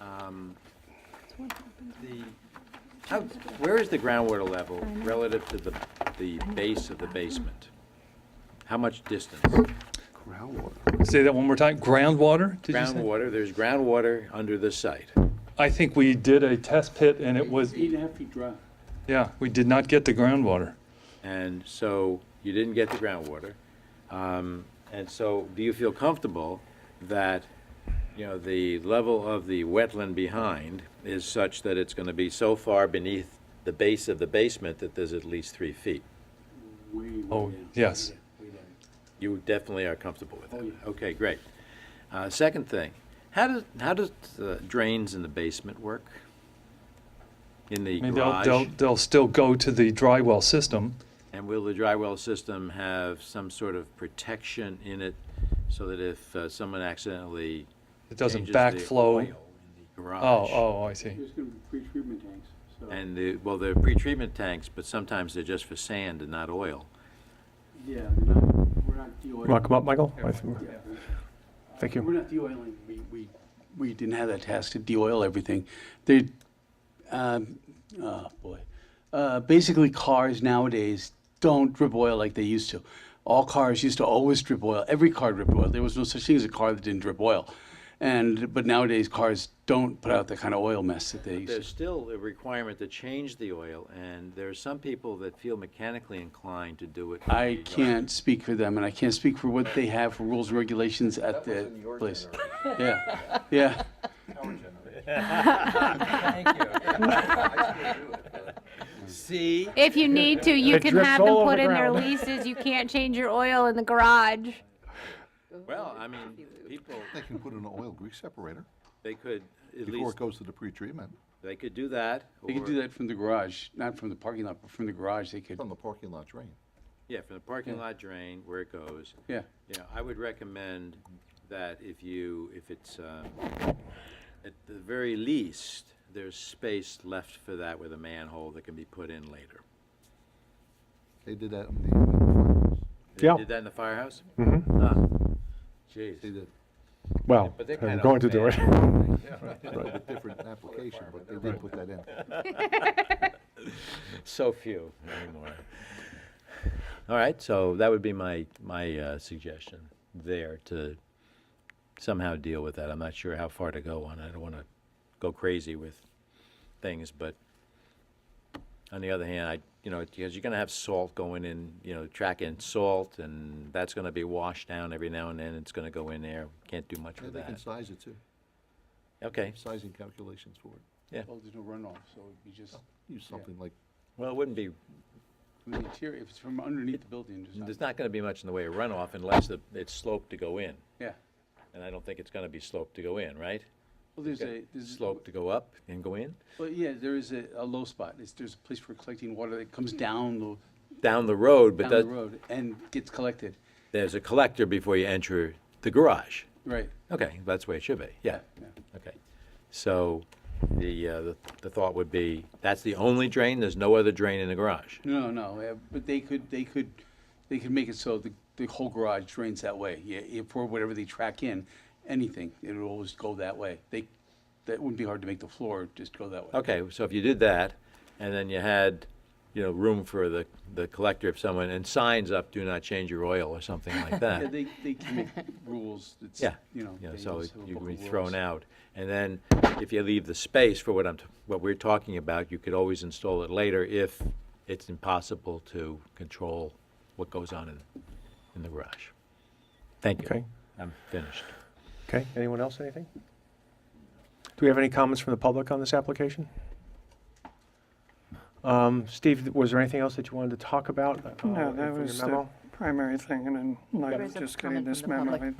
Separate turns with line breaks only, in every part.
um, the, how, where is the groundwater level relative to the, the base of the basement? How much distance?
Say that one more time. Groundwater? Did you say?
Groundwater, there's groundwater under the site.
I think we did a test pit and it was,
Eight and a half feet dry.
yeah, we did not get the groundwater.
And so you didn't get the groundwater. Um, And so do you feel comfortable that, you know, the level of the wetland behind is such that it's going to be so far beneath the base of the basement that there's at least three feet?
Way, way
Oh,
down.
yes.
Way down.
You definitely are comfortable with
Oh,
that?
yeah.
Okay, great. Uh, Second thing, how does, how does the drains in the basement work? In the
Maybe they'll,
garage?
they'll, they'll still go to the dry well system.
And will the dry well system have some sort of protection in it so that if uh, someone accidentally
It doesn't
changes the oil in
backflow.
the
Oh,
garage?
oh, I see.
There's gonna be pre-treatment tanks, so,
And the, well, they're pretreatment tanks, but sometimes they're just for sand and not oil.
yeah, they're not, we're not de-oiling.
Want to come up, Michael?
Yeah.
Thank
We're
you.
not de-oiling, we, we, we didn't have that task to de-oil everything. They, um, oh, boy. Uh, basically, cars nowadays don't drip oil like they used to. All cars used to always drip oil, every car dripped oil, there was no such thing as a car that didn't drip oil. And, but nowadays, cars don't put out the kind of oil mess that they used to.
There's still a requirement to change the oil, and there are some people that feel mechanically inclined to do it.
I can't speak for them, and I can't speak for what they have for rules and regulations at the place. Yeah, yeah.
See?
If you need to, you
It
can
drips
have them
all over
put
the
in their
ground.
leases. You can't change your oil in the garage.
Well, I mean, people,
They can put in an oil grease separator
they could, at
before it
least,
goes to the pretreatment
they could do that.
They could
or-
do that from the garage, not from the parking lot, but from the garage, they could,
from the parking lot drain.
Yeah, from the parking lot drain, where it goes.
yeah.
Yeah, I would recommend that if you, if it's, um, at the very least, there's space left for that with a manhole that can be put in later.
They did that in the firehouse.
They
Yeah.
Did that in the firehouse? Mm-hmm.
They
Jeez.
did
Well,
But they're
I'm
kind
going to
of
do it.
a little bit different application, but they did put that in.
So few anymore. All right, so that would be my, my uh, suggestion there to somehow deal with that. I'm not sure how far to go on. I don't want to go crazy with things, but on the other hand, I, you know, because you're going to have salt going in, you know, tracking salt, and that's going to be washed down every now and then. It's going to go in there. Can't do much
Yeah,
with
They can
that.
size it too,
Okay,
sizing calculations for it.
Well, there's no runoff, so it'd be just
Use something like,
well, it wouldn't be
from the interior, if it's from underneath the building, just
There's
not,
not going to be much in the way of runoff unless the- it's sloped to go in,
yeah.
and I don't think it's going to be sloped to go in, right?
Well, there's
Okay.
a, there's,
Slope to go up and go in?
well, yeah, there is a, a low spot, it's, there's a place for collecting water that comes down
Down the road,
the,
but
down the
that-
road and gets collected,
there's a collector before you enter the garage.
right,
Okay, that's the way it should be, yeah.
yeah.
Okay. So the, uh, the- the thought would be, that's the only drain, there's no other drain in the garage?
No, no, uh, but they could, they could, they could make it so the, the whole garage drains that way. Yeah, if for whatever they track in, anything, it would always go that way. They, that wouldn't be hard to make the floor just go that way.
Okay, so if you did that, and then you had, you know, room for the, the collector if someone, and signs up, do not change your oil or something like that.
Yeah, they, they can make rules, it's,
Yeah.
you know.
Yeah,
they
so
just have a
you
book
can be
of
thrown
rules.
out. And then if you leave the space for what I'm, t- what we're talking about, you could always install it later if it's impossible to control what goes on in, in the garage. Thank you.
Okay.
I'm finished.
Okay, anyone else, anything? Do we have any comments from the public on this application? Um, Steve, was there anything else that you wanted to talk about? uh,
No, that
from your
was the
memo?
primary thing, and in light
There
of
is a
just getting
comment from
this
the
memo,
public.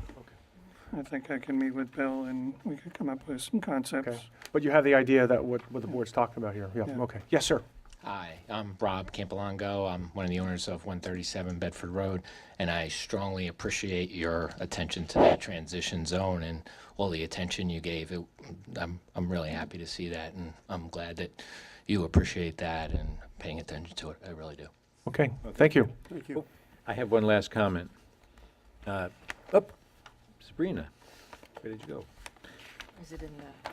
I, I think I can meet with Bill and we could come up with some concepts.
Okay, but you have the idea that what, what the board's talking about here, yeah,
Yeah.
okay. Yes, sir.
Hi, I'm Rob Campolongo. I'm one of the owners of 137 Bedford Road, and I strongly appreciate your attention to the transition zone and all the attention you gave. It, I'm, I'm really happy to see that, and I'm glad that you appreciate that and paying attention to it. I really do.
Okay, thank you.
I have one last comment. Uh, up, Sabrina, where did you go?
Is it in the?